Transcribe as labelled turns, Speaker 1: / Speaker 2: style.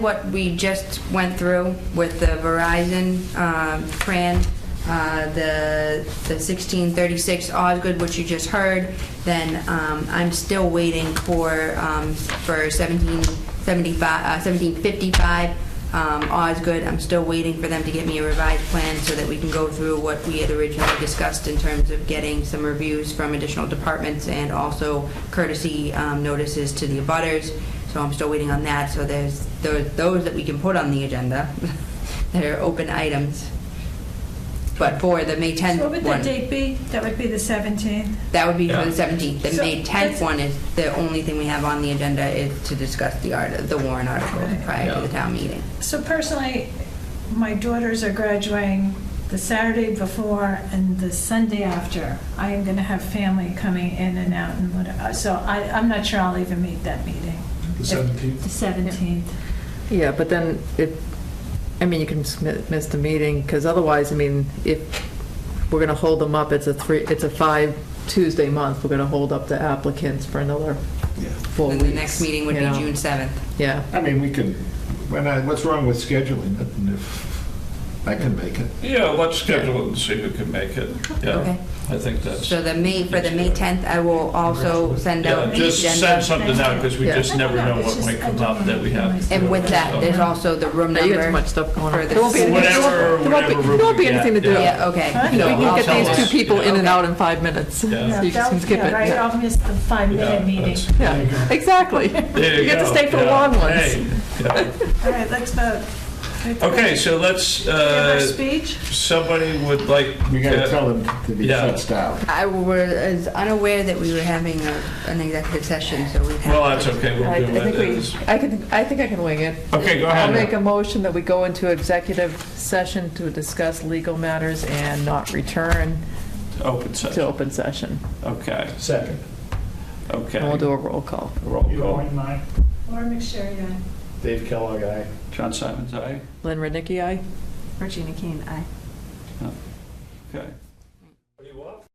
Speaker 1: What we just went through with the Verizon um, plan, uh, the the 1636 Osgood, which you just heard, then um, I'm still waiting for, um, for 1775, uh, 1755 um, Osgood. I'm still waiting for them to get me a revised plan so that we can go through what we had originally discussed in terms of getting some reviews from additional departments and also courtesy um, notices to the abutters. So I'm still waiting on that, so there's, there's those that we can put on the agenda, that are open items. But for the May
Speaker 2: What
Speaker 1: 10th
Speaker 2: would the
Speaker 1: one,
Speaker 2: date be? That would be the 17th.
Speaker 1: that would be for
Speaker 3: Yeah.
Speaker 1: the 17th. The
Speaker 2: So
Speaker 1: May 10th
Speaker 2: that's-
Speaker 1: one is, the only thing we have on the agenda is to discuss the art, the Warren article
Speaker 2: Right.
Speaker 1: prior to the
Speaker 3: Yeah.
Speaker 1: town meeting.
Speaker 2: So personally, my daughters are graduating the Saturday before and the Sunday after. I am going to have family coming in and out and whatever, so I, I'm not sure I'll even make that meeting.
Speaker 4: The
Speaker 2: The
Speaker 4: 17th?
Speaker 2: 17th.
Speaker 5: Yeah, but then it, I mean, you can just mi- miss the meeting, because otherwise, I mean, if we're going to hold them up, it's a three, it's a five Tuesday month, we're going to hold up the applicants for another four
Speaker 1: Then
Speaker 5: weeks.
Speaker 1: the next meeting would be
Speaker 5: you know?
Speaker 1: June 7th.
Speaker 5: Yeah,
Speaker 4: I mean, we can, when I, what's wrong with scheduling it, and if I can make it?
Speaker 3: Yeah, let's schedule it and see who can make it. Yeah,
Speaker 1: Okay.
Speaker 3: I think that's,
Speaker 1: So the May, for the May 10th, I will also send out
Speaker 3: yeah,
Speaker 1: the
Speaker 3: just send
Speaker 1: agenda.
Speaker 3: something out because we
Speaker 5: Yeah.
Speaker 3: just never know
Speaker 2: It's
Speaker 3: what
Speaker 2: just-
Speaker 3: might
Speaker 2: I
Speaker 3: come
Speaker 2: don't
Speaker 3: up that we have. to
Speaker 1: And
Speaker 3: do.
Speaker 1: with that, there's
Speaker 3: So-
Speaker 1: also the room
Speaker 5: Now, you got too
Speaker 1: number.
Speaker 5: much stuff going on.
Speaker 1: for the-
Speaker 5: There won't be anything-
Speaker 3: Whatever-
Speaker 5: there won't be-
Speaker 3: whatever room
Speaker 5: There won't
Speaker 3: we
Speaker 5: be anything to
Speaker 3: get,
Speaker 5: do.
Speaker 1: Yeah, okay.
Speaker 2: Huh?
Speaker 5: You know,
Speaker 3: Yeah,
Speaker 5: We
Speaker 3: I'll
Speaker 5: can get
Speaker 3: tell
Speaker 5: these two
Speaker 3: us.
Speaker 5: people in and
Speaker 1: Okay.
Speaker 5: out in five minutes.
Speaker 3: Yeah.
Speaker 5: So you
Speaker 2: that-
Speaker 5: can skip it.
Speaker 2: yeah, Right,
Speaker 5: Yeah.
Speaker 2: I'll miss the
Speaker 3: Yeah,
Speaker 2: five-minute meeting.
Speaker 3: that's-
Speaker 5: Yeah, exactly.
Speaker 3: There you
Speaker 5: get to
Speaker 3: go.
Speaker 5: stay for the
Speaker 3: Yeah.
Speaker 5: long ones.
Speaker 3: Hey, yeah.
Speaker 2: All right, let's vote.
Speaker 3: Okay, so let's,
Speaker 2: Give our
Speaker 3: uh,
Speaker 2: speech?
Speaker 3: somebody would like.
Speaker 4: We
Speaker 3: uh,
Speaker 4: gotta tell them that he
Speaker 3: Yeah.
Speaker 4: shuts down.
Speaker 1: I was unaware that we were having a- an executive session, so we have.
Speaker 3: Well, that's okay, we'll
Speaker 5: I
Speaker 3: do
Speaker 5: I
Speaker 3: it
Speaker 5: think
Speaker 3: as.
Speaker 5: we, I can, I think I can wing it.
Speaker 3: Okay, go
Speaker 5: I'll make
Speaker 3: ahead.
Speaker 5: a motion that we go into executive session to discuss legal matters and not return
Speaker 3: Open
Speaker 5: to
Speaker 3: session.
Speaker 5: open session.
Speaker 3: Okay,
Speaker 4: Second.
Speaker 5: And we'll
Speaker 3: okay.
Speaker 5: do a roll call.
Speaker 3: Roll call.
Speaker 5: uh,
Speaker 2: Laura McSherry, aye.
Speaker 4: Dave Kellogg, aye.
Speaker 3: John Simon's aye.
Speaker 5: Lynn Rednicki, aye?
Speaker 1: Regina Keen, aye.
Speaker 3: Okay.